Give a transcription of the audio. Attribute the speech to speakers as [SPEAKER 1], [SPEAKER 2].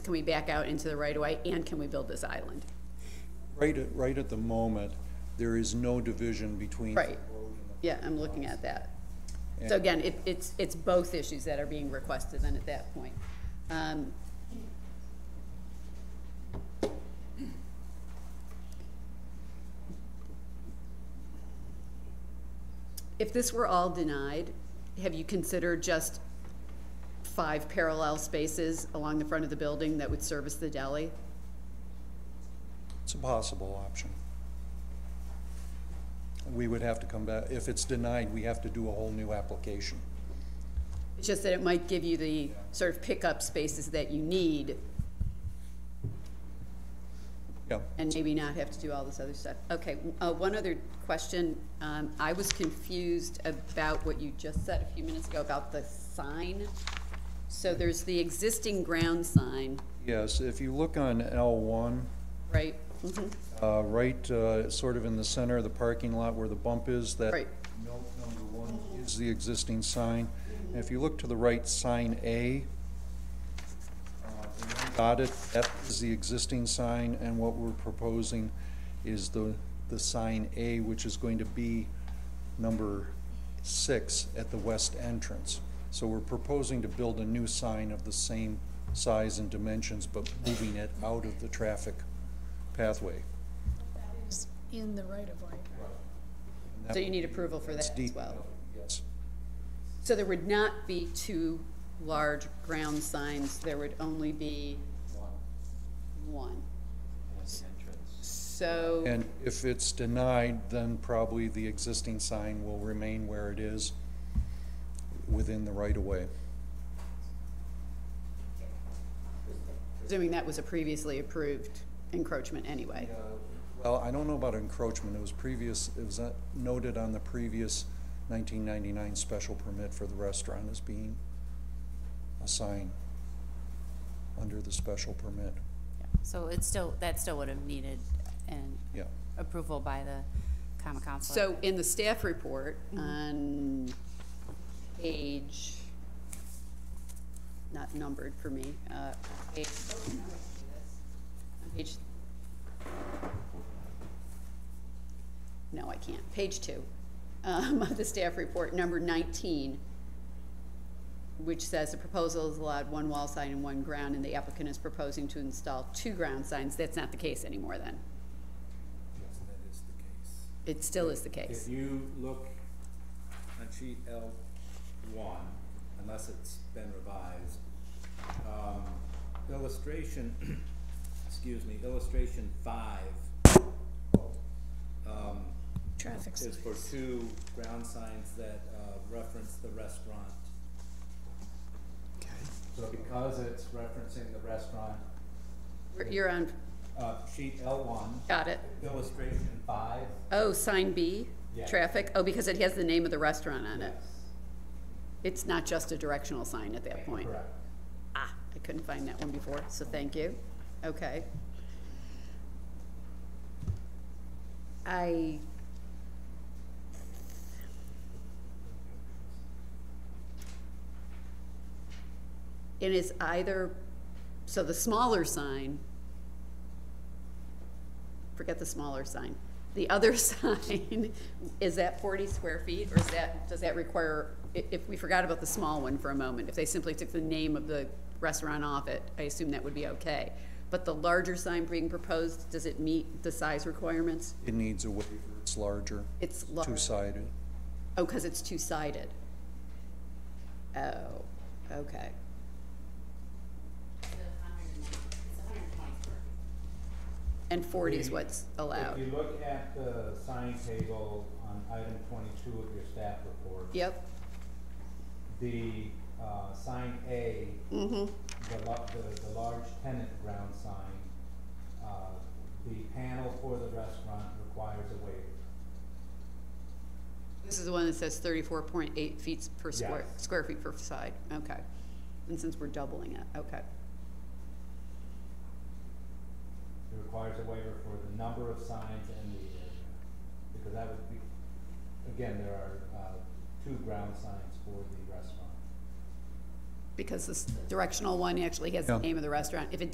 [SPEAKER 1] Can we back out into the right-of-way, and can we build this island?
[SPEAKER 2] Right, at- right at the moment, there is no division between. the
[SPEAKER 1] Right.
[SPEAKER 2] road and the-
[SPEAKER 1] Yeah, I'm looking at that. So again, it, it's, it's both issues that are being requested then at that point. Um, If this were all denied, have you considered just five parallel spaces along the front of the building that would service the deli?
[SPEAKER 2] It's a possible option. We would have to come back, if it's denied, we have to do a whole new application.
[SPEAKER 1] It's just that it might give you the sort of pickup spaces that you need
[SPEAKER 2] Yeah,
[SPEAKER 1] and maybe not have to do all this other stuff. Okay, uh, one other question. Um, I was confused about what you just said a few minutes ago about the sign. So there's the existing ground sign,
[SPEAKER 2] yes, if you look on L one,
[SPEAKER 1] right? Mhm.
[SPEAKER 2] uh, right, uh, sort of in the center of the parking lot where the bump is, that.
[SPEAKER 1] Right.
[SPEAKER 2] Note number one is the existing sign. And if you look to the right, sign A, uh, the one dotted, that is the existing sign, and what we're proposing is the, the sign A, which is going to be number six at the west entrance. So we're proposing to build a new sign of the same size and dimensions, but moving it out of the traffic pathway.
[SPEAKER 3] is in the right of way.
[SPEAKER 2] And that
[SPEAKER 1] So you need approval for
[SPEAKER 2] It's
[SPEAKER 1] that as
[SPEAKER 2] deep.
[SPEAKER 1] well.
[SPEAKER 2] Yes,
[SPEAKER 1] So there would not be two large ground signs, there would only be one. So.
[SPEAKER 2] and if it's denied, then probably the existing sign will remain where it is within the right-of-way.
[SPEAKER 1] Assuming that was a previously approved encroachment anyway.
[SPEAKER 2] Well, I don't know about encroachment, it was previous, it was uh, noted on the previous nineteen ninety-nine special permit for the restaurant as being a sign under the special permit,
[SPEAKER 4] Yeah, So it's still, that still would have needed an
[SPEAKER 2] yeah.
[SPEAKER 4] approval by the common council.
[SPEAKER 1] So in the staff report on page, not numbered for me, uh, page, on page, no, I can't, page two, um, of the staff report, number nineteen, which says the proposal is allowed one wall sign and one ground, and the applicant is proposing to install two ground signs. That's not the case anymore then.
[SPEAKER 5] Yes, that is the case.
[SPEAKER 1] It still is the case.
[SPEAKER 5] If you look on sheet L one, unless it's been revised, um, illustration, excuse me, illustration five, um,
[SPEAKER 3] Traffic
[SPEAKER 5] is for
[SPEAKER 3] signs.
[SPEAKER 5] two ground signs that, uh, reference the restaurant. So because it's referencing the restaurant,
[SPEAKER 1] You're on,
[SPEAKER 5] uh, sheet L one,
[SPEAKER 1] got it.
[SPEAKER 5] illustration five,
[SPEAKER 1] Oh, sign B,
[SPEAKER 5] Yeah.
[SPEAKER 1] traffic, oh, because it has the name of the restaurant on it.
[SPEAKER 5] yes,
[SPEAKER 1] It's not just a directional sign at that point.
[SPEAKER 5] correct.
[SPEAKER 1] Ah, I couldn't find that one before, so thank you. Okay. I. It is either, so the smaller sign, forget the smaller sign. The other sign, is that forty square feet, or is that, does that require, i- if we forgot about the small one for a moment, if they simply took the name of the restaurant off it, I assume that would be okay. But the larger sign being proposed, does it meet the size requirements?
[SPEAKER 2] It needs a waiver, it's larger,
[SPEAKER 1] It's large.
[SPEAKER 2] two-sided.
[SPEAKER 1] Oh, because it's two-sided. Oh, okay. And forty is
[SPEAKER 5] Maybe
[SPEAKER 1] what's allowed.
[SPEAKER 5] If you look at the sign table on item twenty-two of your staff report.
[SPEAKER 1] Yep,
[SPEAKER 5] The, uh, sign A,
[SPEAKER 1] mm-hmm,
[SPEAKER 5] the lo- the, the large tenant ground sign, uh, the panel for the restaurant requires a waiver.
[SPEAKER 1] this is the one that says thirty-four point eight feet per square,
[SPEAKER 5] Yes.
[SPEAKER 1] square feet per side, okay. And since we're doubling it, okay,
[SPEAKER 5] It requires a waiver for the number of signs and the area, because that would be, again, there are, uh, two ground signs for the restaurant.
[SPEAKER 1] because this directional one actually has the
[SPEAKER 2] Yeah.
[SPEAKER 1] name of the restaurant, if it